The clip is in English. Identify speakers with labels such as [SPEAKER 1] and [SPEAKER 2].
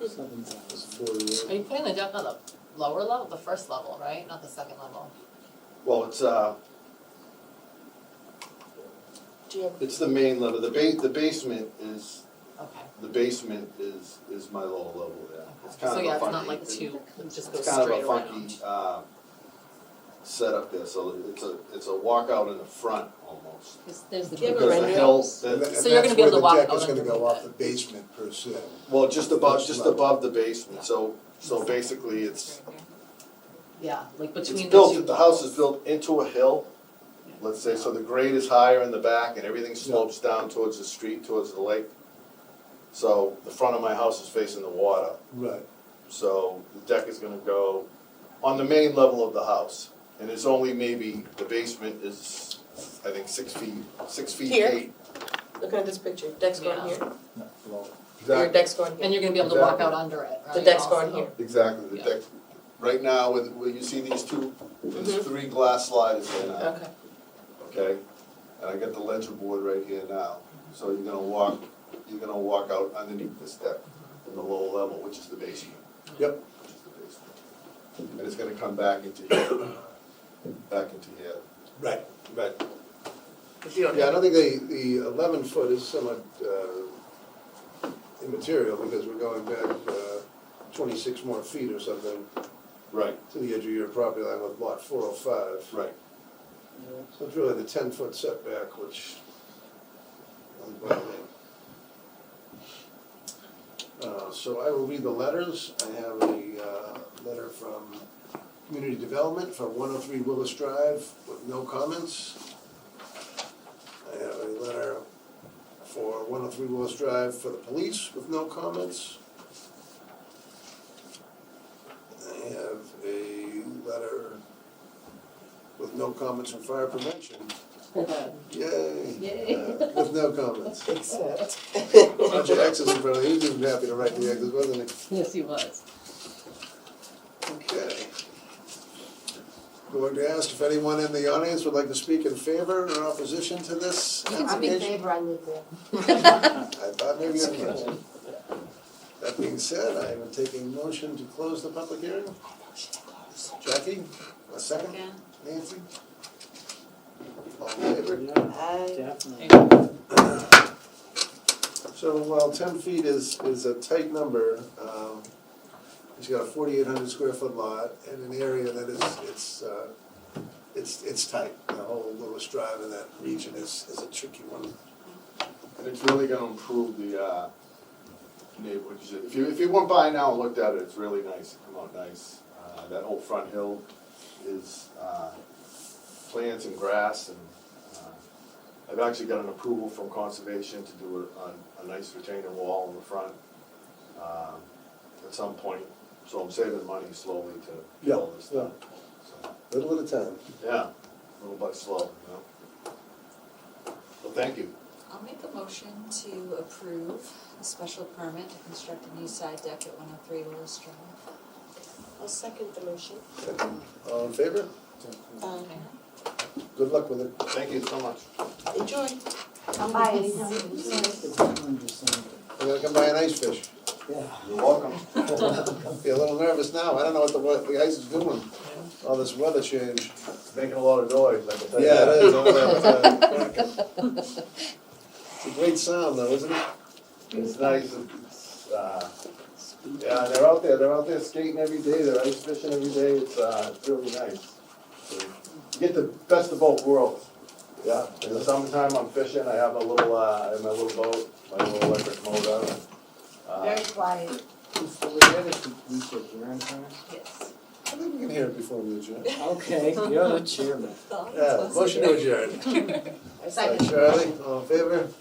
[SPEAKER 1] Seven thousand.
[SPEAKER 2] Forty-eight.
[SPEAKER 3] Are you putting the deck on the lower level, the first level, right, not the second level?
[SPEAKER 2] Well, it's, uh,
[SPEAKER 3] Do you have,
[SPEAKER 2] it's the main level, the ba- the basement is,
[SPEAKER 3] okay,
[SPEAKER 2] the basement is, is my lower level, yeah. It's kind
[SPEAKER 3] so
[SPEAKER 2] of
[SPEAKER 3] yeah,
[SPEAKER 2] a
[SPEAKER 3] it's not
[SPEAKER 2] funky,
[SPEAKER 3] like
[SPEAKER 2] it-
[SPEAKER 3] two, it just goes
[SPEAKER 2] it's kind of
[SPEAKER 3] straight
[SPEAKER 2] a
[SPEAKER 3] around.
[SPEAKER 2] funky, uh, setup there, so it's a, it's a walkout in the front almost.
[SPEAKER 3] Because there's the
[SPEAKER 4] Do you have a
[SPEAKER 3] big
[SPEAKER 2] Because the
[SPEAKER 4] rendering?
[SPEAKER 2] hill,
[SPEAKER 4] And
[SPEAKER 2] the,
[SPEAKER 4] that-
[SPEAKER 3] So you're gonna be able to walk
[SPEAKER 4] That's
[SPEAKER 3] out
[SPEAKER 4] where the deck is
[SPEAKER 3] underneath
[SPEAKER 4] gonna go off the
[SPEAKER 3] it.
[SPEAKER 4] basement per se.
[SPEAKER 2] well, just above,
[SPEAKER 4] First
[SPEAKER 2] just
[SPEAKER 4] level.
[SPEAKER 2] above the basement, so, so basically it's,
[SPEAKER 3] Yeah, like
[SPEAKER 2] it's
[SPEAKER 3] between the two.
[SPEAKER 2] built, the house is built into a hill,
[SPEAKER 3] Yeah.
[SPEAKER 2] let's say, so the grade is higher in the back and everything slopes down towards the street, towards the lake. So the front of my house is facing the water,
[SPEAKER 4] Right,
[SPEAKER 2] so the deck is gonna go on the main level of the house. And it's only maybe, the basement is, I think, six feet, six feet
[SPEAKER 5] Here.
[SPEAKER 2] eight.
[SPEAKER 5] Look at this picture, deck's
[SPEAKER 3] Yeah.
[SPEAKER 5] going here,
[SPEAKER 4] no, well,
[SPEAKER 5] your deck's going
[SPEAKER 3] And
[SPEAKER 5] here,
[SPEAKER 3] you're gonna be able to walk
[SPEAKER 2] Exactly.
[SPEAKER 3] out under it, right?
[SPEAKER 5] the deck's
[SPEAKER 3] also?
[SPEAKER 5] going here.
[SPEAKER 2] Exactly, the
[SPEAKER 3] Yeah.
[SPEAKER 2] deck, right now, with, where you see these two,
[SPEAKER 5] Mhm.
[SPEAKER 2] there's three glass sliders there now,
[SPEAKER 5] Okay,
[SPEAKER 2] okay? And I got the ledger board right here now, so you're gonna walk, you're gonna walk out underneath this deck in the lower level, which is the basement.
[SPEAKER 4] Yep.
[SPEAKER 2] Which is the basement. And it's gonna come back into here, back into here.
[SPEAKER 4] right.
[SPEAKER 2] Right.
[SPEAKER 5] if you don't
[SPEAKER 4] Yeah, I
[SPEAKER 5] have,
[SPEAKER 4] don't think the, the eleven foot is somewhat, uh, immaterial, because we're going back, uh, twenty-six more feet or something
[SPEAKER 2] Right,
[SPEAKER 4] to the edge of your property line with lot four oh five.
[SPEAKER 2] right.
[SPEAKER 4] So it's really the ten foot setback, which. doesn't bother me. Uh, so I will read the letters, I have a, uh, letter from Community Development for one oh three Willis Drive with no comments. I have a letter for one oh three Willis Drive for the police with no comments. I have a letter with no comments on fire prevention. Yay.
[SPEAKER 3] Yay.
[SPEAKER 4] Uh, With no comments.
[SPEAKER 5] except,
[SPEAKER 4] Bunch of X's in front of it. He was happy to write the X's, wasn't he?
[SPEAKER 3] Yes, he was.
[SPEAKER 4] Okay. Going to ask if anyone in the audience would like to speak in favor or opposition to this
[SPEAKER 6] I'm in
[SPEAKER 4] application.
[SPEAKER 6] favor, I live there.
[SPEAKER 4] I thought maybe I could. That being said, I am taking motion to close the public hearing. Jackie, a second? Nancy? All in favor?
[SPEAKER 1] Yeah,
[SPEAKER 5] I,
[SPEAKER 1] definitely.
[SPEAKER 4] So while ten feet is, is a tight number, um, he's got a forty-eight hundred square foot lot and an area that is, it's, uh, it's, it's tight. The whole Lewis Drive in that region is, is a tricky one.
[SPEAKER 2] And it's really gonna improve the, uh, neighborhood, 'Cause if you, if you went by now and looked at it, it's really nice, it come out nice. Uh, that whole front hill is, uh, plants and grass and, uh, I've actually got an approval from conservation to do a, a, a nice retaining wall in the front, um, at some point, so I'm saving money slowly to do all this
[SPEAKER 4] Yeah,
[SPEAKER 2] stuff.
[SPEAKER 4] yeah. Little at a time.
[SPEAKER 2] Yeah, little by slow, you know? Well, thank you.
[SPEAKER 7] I'll make a motion to approve a special permit to construct a new side deck at one oh three Willis Drive.
[SPEAKER 5] I'll second the motion.
[SPEAKER 4] Second. All in favor?
[SPEAKER 5] Um,
[SPEAKER 4] Good luck with it.
[SPEAKER 2] Thank you so much.
[SPEAKER 5] enjoy.
[SPEAKER 6] I'm by anytime. It's
[SPEAKER 1] It's time to sign it.
[SPEAKER 4] I'm gonna come buy an ice fish.
[SPEAKER 1] Yeah.
[SPEAKER 2] You're welcome.
[SPEAKER 4] Be a little nervous now. I don't know what the, what the ice is doing. All this weather change.
[SPEAKER 2] Making a lot of noise, like I said.
[SPEAKER 4] Yeah, it is. all that, uh, It's a great sound though, isn't it?
[SPEAKER 2] It's nice, it's, uh, yeah, they're out there, they're out there skating every day, they're ice fishing every day, it's, uh, it's really nice. So, You get the best of both worlds. Yeah, in the summertime, I'm fishing, I have a little, uh, I have my little boat, my little electric motor. Uh,
[SPEAKER 6] Very quiet.
[SPEAKER 1] So we had it, we should adjourn first.
[SPEAKER 3] Yes.
[SPEAKER 4] I think we can hear it before we adjourn.
[SPEAKER 1] Okay, you're the chairman.
[SPEAKER 4] Yeah, motion to adjourn.
[SPEAKER 6] Second.
[SPEAKER 4] Charlie, all in favor?